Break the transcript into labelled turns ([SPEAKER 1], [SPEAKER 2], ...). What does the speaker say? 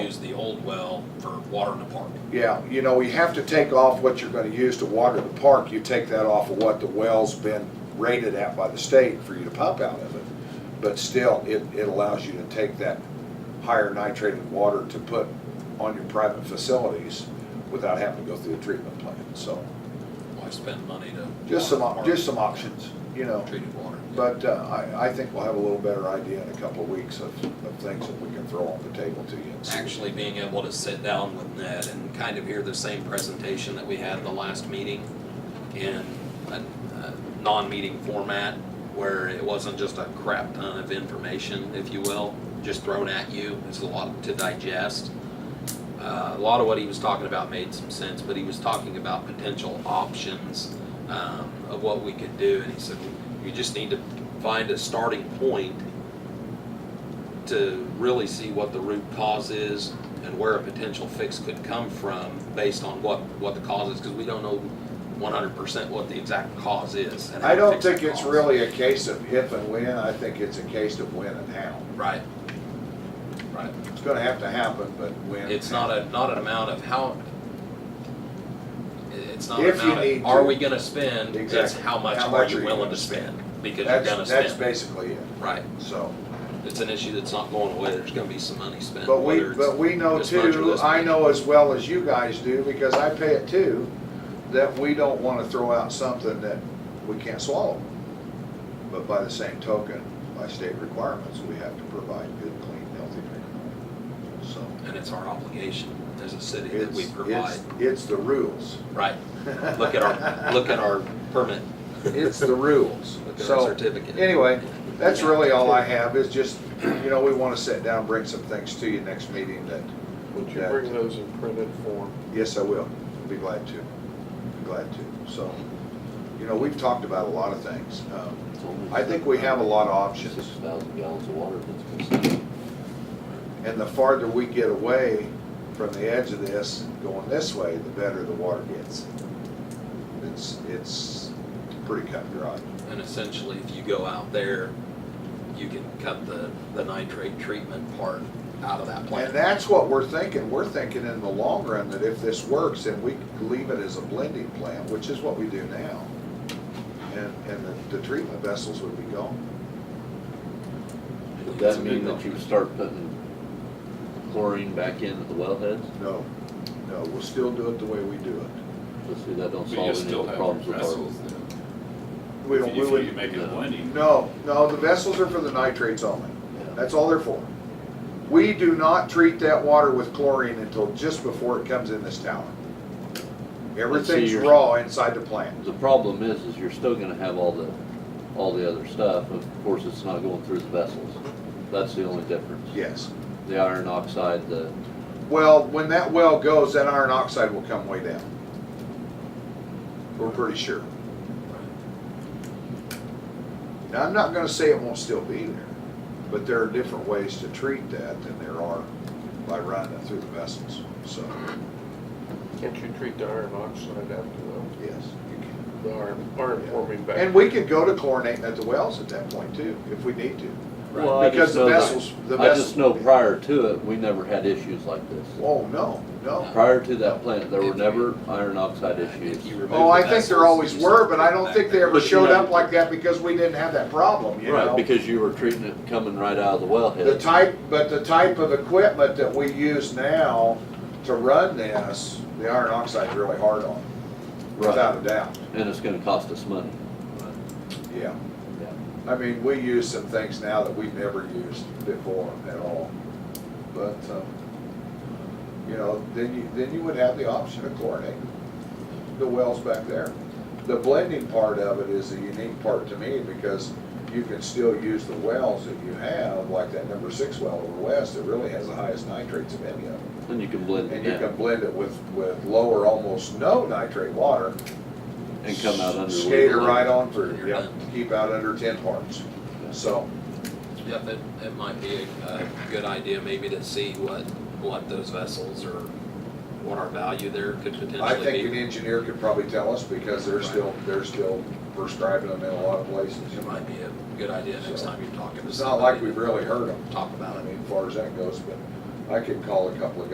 [SPEAKER 1] old well for water in the park.
[SPEAKER 2] Yeah, you know, you have to take off what you're gonna use to water the park, you take that off of what the well's been rated at by the state for you to pump out of it. But still, it, it allows you to take that higher nitrated water to put on your private facilities without having to go through a treatment plant, so.
[SPEAKER 1] Why spend money to?
[SPEAKER 2] Just some,
[SPEAKER 1] water
[SPEAKER 2] op-
[SPEAKER 1] the
[SPEAKER 2] just some options, you know,
[SPEAKER 1] park, Treated water.
[SPEAKER 2] but uh, I, I think we'll have a little better idea in a couple of weeks of, of things that we can throw on the table to you. and see.
[SPEAKER 1] Actually being able to sit down with Ned and kind of hear the same presentation that we had the last meeting in a, a non-meeting format where it wasn't just a crap ton of information, if you will, just thrown at you. It's a lot to digest. Uh, a lot of what he was talking about made some sense, but he was talking about potential options um, of what we could do, and he said we just need to find a starting point to really see what the root cause is and where a potential fix could come from based on what what the cause is, because we don't know 100% what the exact cause is. and how
[SPEAKER 2] I
[SPEAKER 1] to
[SPEAKER 2] don't
[SPEAKER 1] fix the
[SPEAKER 2] think it's
[SPEAKER 1] cause.
[SPEAKER 2] really a case of if and when, I think it's a case of when and how.
[SPEAKER 1] right. Right.
[SPEAKER 2] It's gonna have to happen, but when.
[SPEAKER 1] It's not a, not an amount of how, it's not an
[SPEAKER 2] If you
[SPEAKER 1] amount
[SPEAKER 2] need
[SPEAKER 1] of, are
[SPEAKER 2] to.
[SPEAKER 1] we gonna spend? It's
[SPEAKER 2] Exactly.
[SPEAKER 1] how much
[SPEAKER 2] How
[SPEAKER 1] are
[SPEAKER 2] much
[SPEAKER 1] you willing to spend? Because you're gonna
[SPEAKER 2] That's, that's
[SPEAKER 1] spend,
[SPEAKER 2] basically it,
[SPEAKER 1] right.
[SPEAKER 2] so.
[SPEAKER 1] It's an issue that's not going away. There's gonna be some money spent,
[SPEAKER 2] But we,
[SPEAKER 1] whether
[SPEAKER 2] but
[SPEAKER 1] it's,
[SPEAKER 2] we know
[SPEAKER 1] this much or
[SPEAKER 2] too,
[SPEAKER 1] this
[SPEAKER 2] I
[SPEAKER 1] much.
[SPEAKER 2] know as well as you guys do, because I pay it too, that we don't wanna throw out something that we can't swallow. But by the same token, by state requirements, we have to provide good, clean, healthy drinking water. So
[SPEAKER 1] and it's our obligation as a city that
[SPEAKER 2] it's,
[SPEAKER 1] we provide,
[SPEAKER 2] it's, it's the rules.
[SPEAKER 1] right? Look at our, look at our permit,
[SPEAKER 2] It's the rules.
[SPEAKER 1] look at our
[SPEAKER 2] So
[SPEAKER 1] certificate.
[SPEAKER 2] anyway, that's really all I have is just, you know, we wanna sit down, bring some things to you next meeting that,
[SPEAKER 3] Would you
[SPEAKER 2] Yeah.
[SPEAKER 3] bring those in printed form?
[SPEAKER 2] yes, I will. Be glad to. Be glad to. So, you know, we've talked about a lot of things. Um, I think we have a lot of
[SPEAKER 4] Six
[SPEAKER 2] options.
[SPEAKER 4] thousand gallons of water that's consumed.
[SPEAKER 2] And the farther we get away from the edge of this, going this way, the better the water gets. It's, it's pretty cut and dry.
[SPEAKER 1] And essentially, if you go out there, you can cut the, the nitrate treatment part out of that plant.
[SPEAKER 2] And that's what we're thinking. We're thinking in the long run that if this works and we leave it as a blending plant, which is what we do now, and, and the, the treatment vessels would be gone.
[SPEAKER 4] Would that mean that you would start putting chlorine back in at the wellheads?
[SPEAKER 2] No, no, we'll still do it the way we do it.
[SPEAKER 4] Let's see, that don't
[SPEAKER 5] But you
[SPEAKER 4] solve any
[SPEAKER 5] still
[SPEAKER 4] of the
[SPEAKER 5] have
[SPEAKER 4] problems
[SPEAKER 5] your
[SPEAKER 4] with our.
[SPEAKER 5] vessels then.
[SPEAKER 2] We
[SPEAKER 5] If
[SPEAKER 2] don't,
[SPEAKER 5] you-
[SPEAKER 2] we
[SPEAKER 5] if you
[SPEAKER 2] would,
[SPEAKER 5] make it a blending,
[SPEAKER 2] no, no, the vessels are for the nitrates only.
[SPEAKER 4] Yeah.
[SPEAKER 2] That's all they're for. We do not treat that water with chlorine until just before it comes in this tower. Everything's
[SPEAKER 4] you're-
[SPEAKER 2] raw inside the plant.
[SPEAKER 4] The problem is, is you're still gonna have all the, all the other stuff, of course, it's not going through the vessels. That's the only difference.
[SPEAKER 2] Yes.
[SPEAKER 4] The iron oxide, the,
[SPEAKER 2] Well, when that well goes, that iron oxide will come way down. We're pretty sure. Now, I'm not gonna say it won't still be there, but there are different ways to treat that than there are by running it through the vessels, so,
[SPEAKER 3] Can't you treat the iron oxide after
[SPEAKER 2] yes. you can.
[SPEAKER 3] the, the iron, iron forming back?
[SPEAKER 2] And we could go to chlorinating at the wells at that point too, if we need to.
[SPEAKER 4] well, I
[SPEAKER 2] Because
[SPEAKER 4] just
[SPEAKER 2] the
[SPEAKER 4] know that-
[SPEAKER 2] vessels, the
[SPEAKER 4] I
[SPEAKER 2] vessels.
[SPEAKER 4] just know prior to it, we never had issues like this.
[SPEAKER 2] Oh, no, no.
[SPEAKER 4] Prior to that plant, there were never iron oxide issues.
[SPEAKER 1] If you remove
[SPEAKER 2] Oh,
[SPEAKER 1] the
[SPEAKER 2] I think
[SPEAKER 1] vessels,
[SPEAKER 2] there always
[SPEAKER 1] you
[SPEAKER 2] were,
[SPEAKER 1] start
[SPEAKER 2] but I don't
[SPEAKER 1] back
[SPEAKER 2] think they
[SPEAKER 1] there.
[SPEAKER 2] ever
[SPEAKER 4] But you
[SPEAKER 2] showed
[SPEAKER 4] know-
[SPEAKER 2] up like that because we didn't have that problem, you know?
[SPEAKER 4] Right, because you were treating it coming right out of the
[SPEAKER 2] The
[SPEAKER 4] wellhead.
[SPEAKER 2] type, but the type of equipment that we use now to run this, the iron oxide's really hard on,
[SPEAKER 4] Right,
[SPEAKER 2] without a doubt,
[SPEAKER 4] and it's gonna cost us money.
[SPEAKER 2] yeah.
[SPEAKER 4] Yeah.
[SPEAKER 2] I mean, we use some things now that we've never used before at all, but, um, you know, then you, then you would have the option of chlorinating the wells back there. The blending part of it is the unique part to me, because you can still use the wells that you have, like that number six well over west, that really has the highest nitrates of any of them.
[SPEAKER 4] And you can blend it
[SPEAKER 2] And you can
[SPEAKER 4] down
[SPEAKER 2] blend it with, with lower, almost no nitrate water.
[SPEAKER 4] and come out under.
[SPEAKER 2] Skater right on through,
[SPEAKER 1] You're
[SPEAKER 2] yeah,
[SPEAKER 1] done.
[SPEAKER 2] keep out under ten parts, so.
[SPEAKER 1] Yep, it, it might be a, a good idea maybe to see what, what those vessels or what our value there could
[SPEAKER 2] I
[SPEAKER 1] potentially
[SPEAKER 2] think an
[SPEAKER 1] be.
[SPEAKER 2] engineer could probably tell us, because they're still, they're still prescribing them in a lot of places.
[SPEAKER 1] It might be a good idea next
[SPEAKER 2] So,
[SPEAKER 1] time you're talking to
[SPEAKER 2] It's not like
[SPEAKER 1] somebody
[SPEAKER 2] we've really heard them,
[SPEAKER 1] to Talk about
[SPEAKER 2] I
[SPEAKER 1] it.
[SPEAKER 2] mean, as far as that goes, but I could call a couple of guys